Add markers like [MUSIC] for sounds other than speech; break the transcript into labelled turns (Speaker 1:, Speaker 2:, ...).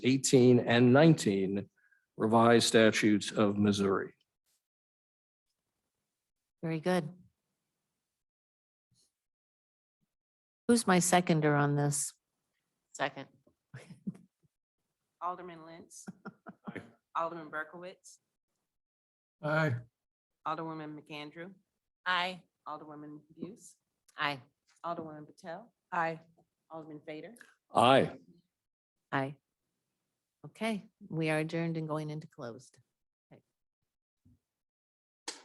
Speaker 1: 18 and 19 revised statutes of Missouri.
Speaker 2: Very good. Who's my seconder on this?
Speaker 3: Second.
Speaker 4: [LAUGHS] Alderman Lentz. Alderman Berkowitz.
Speaker 5: Aye.
Speaker 4: Alderwoman McAndrew.
Speaker 3: Aye.
Speaker 4: Alderwoman Buse.
Speaker 3: Aye.
Speaker 4: Alderwoman Patel. Aye. Alderman Fader.
Speaker 1: Aye.
Speaker 2: Aye. Okay, we are adjourned and going into closed.